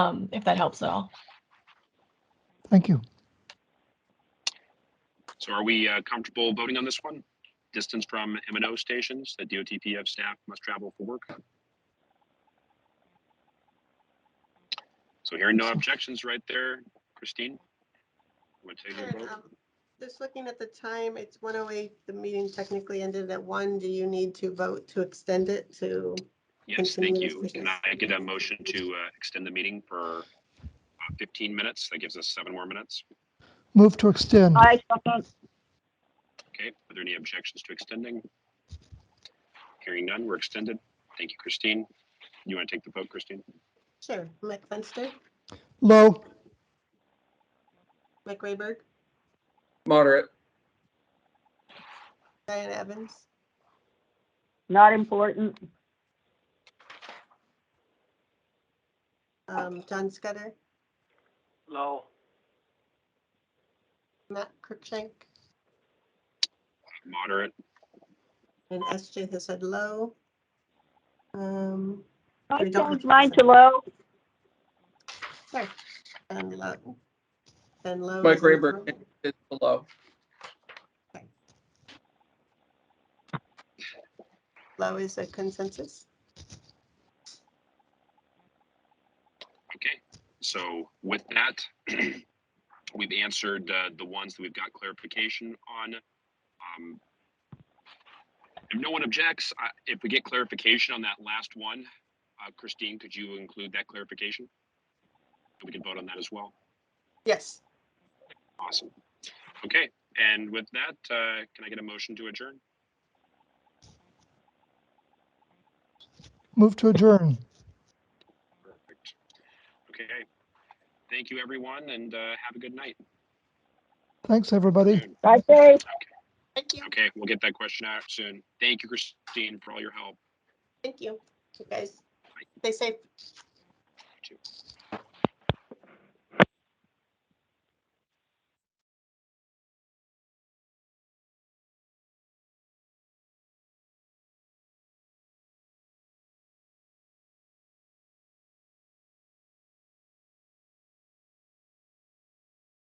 um, if that helps at all. Thank you. So are we uh, comfortable voting on this one? Distance from M and O stations that DOTPF staff must travel for work? So hearing no objections right there, Christine? I'm gonna take your Sure, vote. um, Just looking at the time, it's 1:08, the meeting technically ended at 1. Do you need to vote to extend it to? Yes, thank you. Continuous Can I get a motion to uh, extend the meeting for uh, 15 minutes? That gives us seven more minutes. Move to extend. I second. Okay, are there any objections to extending? Hearing none, we're extended. Thank you, Christine. You want to take the vote, Christine? Sure. Mike Fenster, Low, Mike Rayberg, Moderate. Diana Evans, Not important. um, John Scudder, Low. Matt Cruikshank, Moderate, and SJ has said low. Um, I We don't- changed mine to low. Ben Low. Ben Low. Mike is in Rayberg. favor. It's below. Low is a consensus. okay. So with that, we've answered uh, the ones that we've got clarification on. Um, If no one objects, I- if we get clarification on that last one, uh, Christine, could you include that clarification? We can vote on that as well. Yes. Awesome. Okay, and with that, uh, can I get a motion to adjourn? move to adjourn. Perfect. Okay. Thank you, everyone, and uh, have a good night. Thanks, everybody. I say, Thank you. Okay, we'll get that question out soon. Thank you, Christine, for all your help. Thank you. You guys, stay safe.